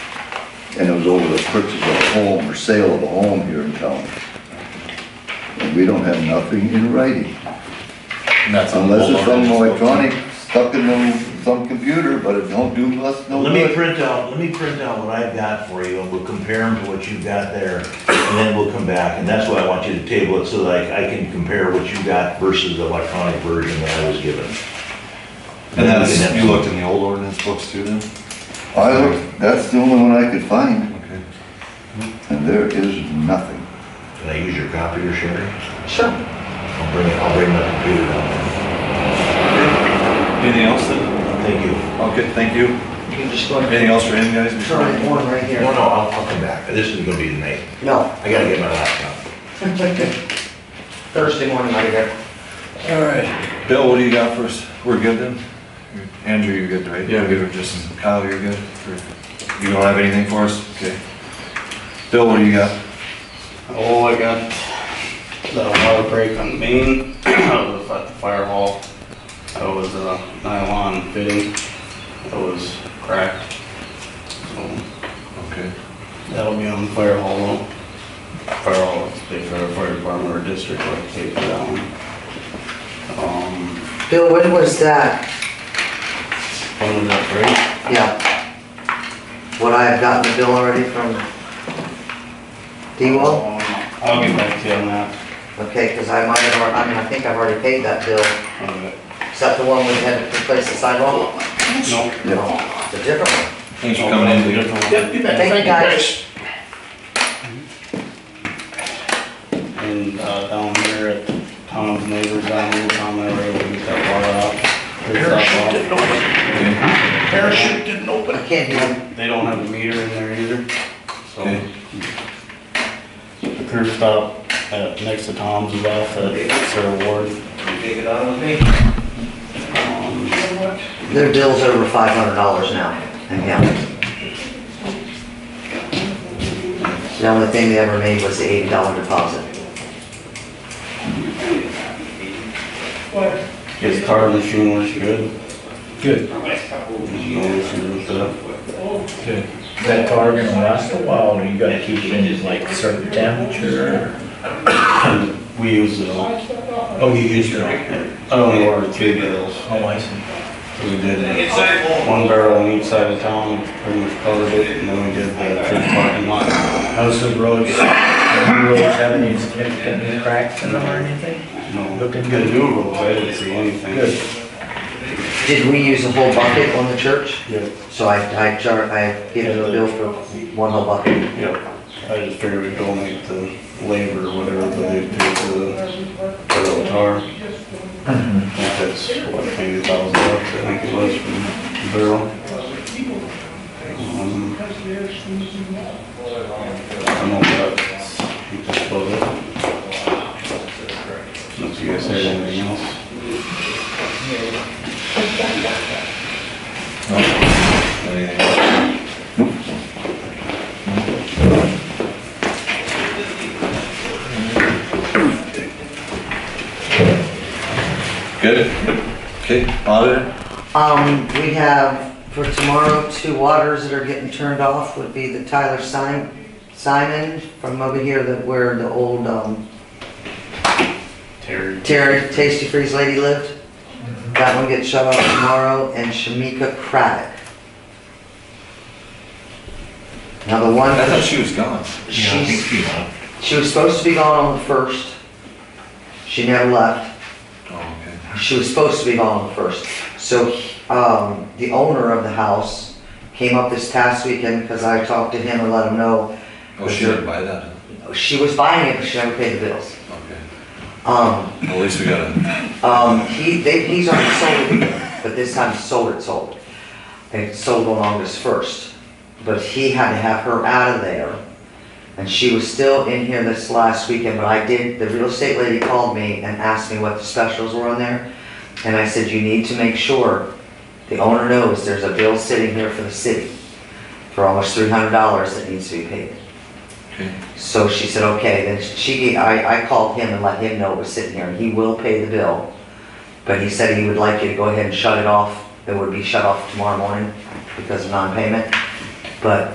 and it was over the purchase of a home or sale of a home here in town. And we don't have nothing in writing, And that's a unless it's some homeowner. electronic stuck in the- some computer, but it don't do us no Let me good. print out, let me print out what I've got for you, and we'll compare them to what you've got there, and then we'll come back, and that's why I want you to table it, so that I I can compare what you got versus the electronic version that I was given. And that's, you looked in the old ordinance books too then? I looked, that's the only one I could find, Okay. and there is nothing. Can I use your copier, Sherry? Sure. I'll bring it, I'll bring my computer down. Anything else then? Thank you. Okay, thank you. You can just go Anything and else for him, guys? before- try one right here. No, no, I'll, I'll come back, this is gonna be the night, No. I gotta get my laptop. Thursday morning, I'll be there. All right. Bill, what do you got for us? We're good then? Andrew, you're good, right? Yeah, I'm good. Just Kyle, you're good? Or- You don't have anything for us? Okay. Bill, what do you got? Oh, I got the water break on the main, I was at the fire hall. I was uh, nylon fitting, it was cracked. So Okay. that'll be on the fire hall though. Fire hall, it's big for the fire department or district, like take that one. Um, Bill, when was that? one of that break, Yeah. Would I have gotten the bill already from D-Wall? Oh. um, I'll get back to you on that. Okay, because I might have, al- I mean, I think I've already paid that bill. Okay. Is that the one we had to replace the sidewalk? Nope. No, it's a different one. Thanks for coming in, Bill. Yep, you bet. Thank you, guys. And uh, down here at Tom's neighbors, down here, Tom and I were able to get that water out. Parachute didn't open. Parachute didn't But I can't hear. They don't have a meter in there either, so. Okay. The curb stop at, next to Tom's is off at Sarah Ward. Take it out of me? Their bill's over five hundred dollars now, and yeah. The only thing they ever made was the eighty dollar deposit. His car machine works good. Good. There's no issue with that. Good. Is that car gonna last a while, or you gotta keep it in like a certain temperature? We use it all. Oh, you used it. I only ordered three bills. Oh, I see. We did one barrel on each side of town, pretty much covered it, and then we did the church parking lot. How's the roads, any roads have any significant cracks in them or anything? No, the new roads, I didn't see anything. Good. Did we use a whole bucket on the church? Yep, So I, I char, I gave them a bill for one whole bucket. yep. I just figured we'd donate the labor, or whatever, that they do for the, for the tar. I think That's what, maybe a thousand bucks, I think it was, for the barrel. Um, I don't know if that's, you just split it. Unless you guys have anything else. Anything else? Good? Okay, auditor? Um, we have for tomorrow, two waters that are getting turned off would be the Tyler Sim- Simon from over here that where the old, um, Terry. Terry Tasty Freeze lady lived. That one gets shut off tomorrow, and Shamika Craddock. Now the I thought one, she was gone. Yeah, I think she's, she might. she was supposed to be gone on the first. She never left. Oh, okay. She was supposed to be gone on the first. So, um, the owner of the house came up this past weekend because I talked to him and let him know Oh, she didn't buy that, huh? she was buying it, but she never paid the bills. Okay. Um, Well, at least we got a, um, he, they, he's already sold it, but this time sold it, sold. And it sold on August first, but he had to have her out of there. And she was still in here this last weekend, but I did, the real estate lady called me and asked me what the specials were on there. And I said, you need to make sure the owner knows there's a bill sitting here for the city for almost three hundred dollars that needs to be paid. okay. So she said, okay, then she, I, I called him and let him know it was sitting there, and he will pay the bill. But he said he would like you to go ahead and shut it off, it would be shut off tomorrow morning because of non-payment. But